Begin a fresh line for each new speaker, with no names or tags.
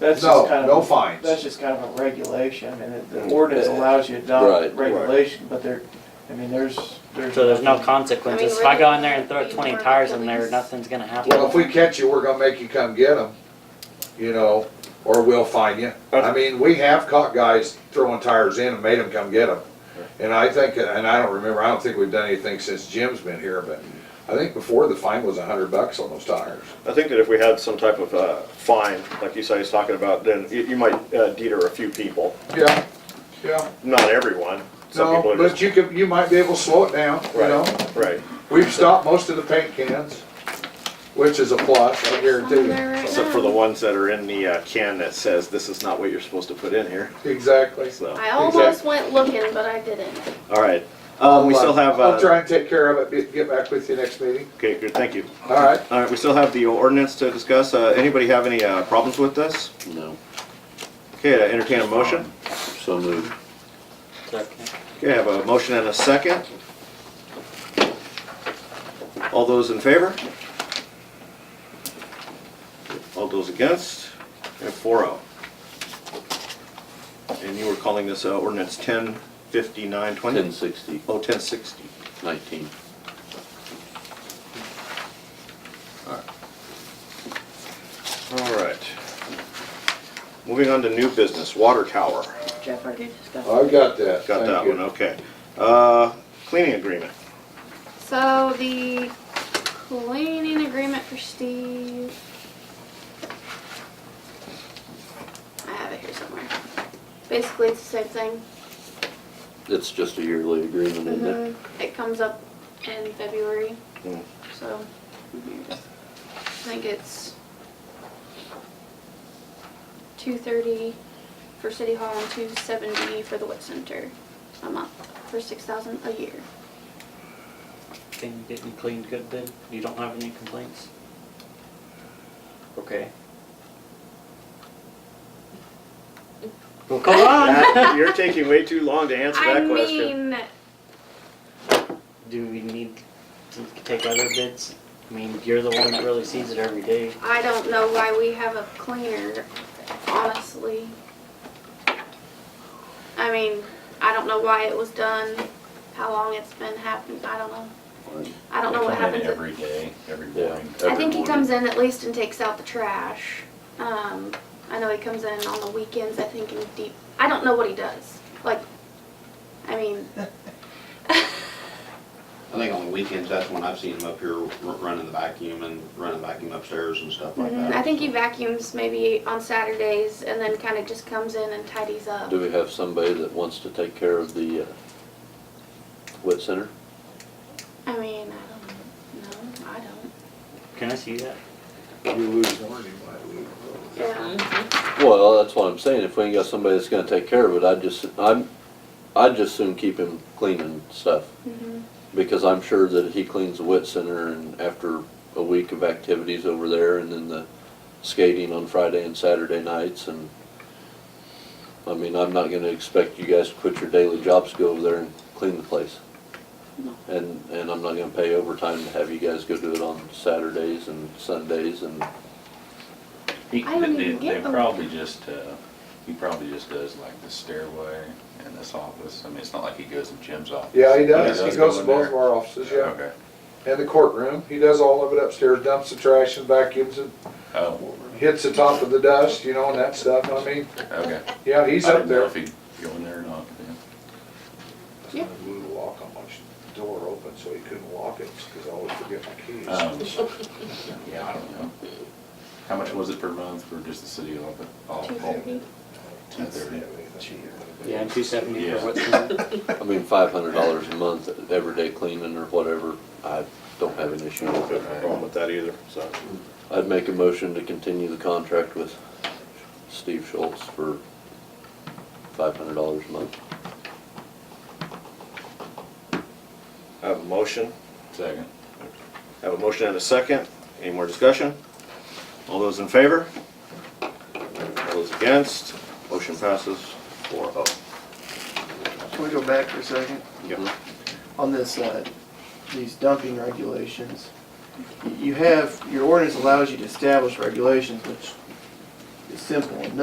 That's
No,
just kind of.
no fines.
That's just kind of a regulation, and it- the ordinance allows you to adopt
Right.
regulation, but there, I mean, there's, there's.
So there's no
nothing-
consequences. If I go in there and throw twenty tires in there, nothing's gonna happen.
Well, if we catch you, we're gonna make you come get them, you know, or we'll fine you. I mean, we have caught guys throwing tires in and made them come get them. And I think, and I don't remember, I don't think we've done anything since Jim's been here, but I think before the fine was a hundred bucks on those tires.
I think that if we had some type of uh, fine, like you say, he's talking about, then you you might uh, deter a few people,
Yeah, yeah.
not everyone. Some people
No,
are
but
just-
you could, you might be able to slow it down, you know?
Right, right.
We've stopped most of the paint cans, which is a plus, I guarantee you.
Except for the ones that are in the uh, can that says, this is not what you're supposed to put in here,
Exactly.
so.
I almost went looking, but I didn't.
All right. Um, We still have,
I'll
uh,
try and take care of it, get back with you next meeting.
okay, good, thank you.
All right.
All right, we still have the ordinance to discuss. Uh, Anybody have any uh, problems with this?
No,
Okay, I entertain a motion.
so moved.
Okay, I have a motion and a second. All those in favor? All those against? And four oh. And you were calling this uh, ordinance ten fifty-nine
Ten
twenty?
sixty,
Oh, ten sixty.
nineteen.
All right. Moving on to new business, water tower.
Jeff, I did just
Oh, I've got that. Thank
Got that
you.
one, okay. Uh, Cleaning agreement.
So the cleaning agreement for Steve. I have it here somewhere. Basically, it's the same thing.
It's just a yearly agreement, isn't it?
Mhm. It comes up in February,
Mm.
so. mhm, just- I think it's two thirty for City Hall and two seventy for the Wit Center a month for six thousand a year.
Can you get me cleaned good then? You don't have any complaints? Okay. Well, come on!
That- You're taking way too long to answer
I
that question.
mean,
Do we need to take other bids? I mean, you're the one that really sees it every day.
I don't know why we have a cleaner, honestly. I mean, I don't know why it was done, how long it's been happening, I don't know. I don't know what happens. if-
Every day, every
Yeah.
morning.
I think he comes in at least and takes out the trash. Um, I know he comes in on the weekends, I think, and deep, I don't know what he does. Like, I mean,
I think on the weekends, that's when I've seen him up here r- running the vacuum and running the vacuum upstairs and stuff
Mm-hmm.
like
Mm-hmm. I
that.
think he vacuums maybe on Saturdays and then kind of just comes in and tidies up.
Do we have somebody that wants to take care of the uh, wet center?
I mean, I don't know. I don't.
Can I see that?
You lose one, you might lose both.
Yeah.
Well, that's what I'm saying, if we ain't got somebody that's gonna take care of it, I'd just, I'm, I'd just soon keep him clean and stuff.
Mhm.
Because I'm sure that he cleans the wet center and after a week of activities over there and then the skating on Friday and Saturday nights and I mean, I'm not gonna expect you guys to quit your daily jobs, to go over there and clean the place.
No.
And, and I'm not gonna pay overtime to have you guys go do it on Saturdays and Sundays and,
He-
I don't
they-
even get
They
them.
probably just, uh, he probably just does like the stairway and this office. I mean, it's not like he goes to Jim's office.
Yeah, he does. He
go
goes to
in
both of
there.
our offices, yeah.
Okay.
And the courtroom. He does all of it upstairs, dumps the trash and vacuums and
Oh,
hits the top of the dust, you know, and that stuff. I mean,
okay.
yeah, he's
I
up
didn't know
there.
if he'd go in there or not. yeah.
Yeah.
We would walk on my door open so he couldn't lock it because I always forget my keys.
Um, Yeah, I don't know. How much was it per month for just the city office?
Two thirty.
Two thirty.
Yeah, two seventy
Yeah.
for what's in it.
I mean, five hundred dollars a month, everyday cleaning or whatever, I don't have an issue with it.
No problem with that either, so.
I'd make a motion to continue the contract with Steve Schultz for five hundred dollars a month.
I have a motion.
Second.
I have a motion and a second. Any more discussion? All those in favor? All those against? Motion passes four oh.
Can we go back for a second?
Yep.
On this, uh, these dumping regulations, you have, your ordinance allows you to establish regulations, which is simple enough.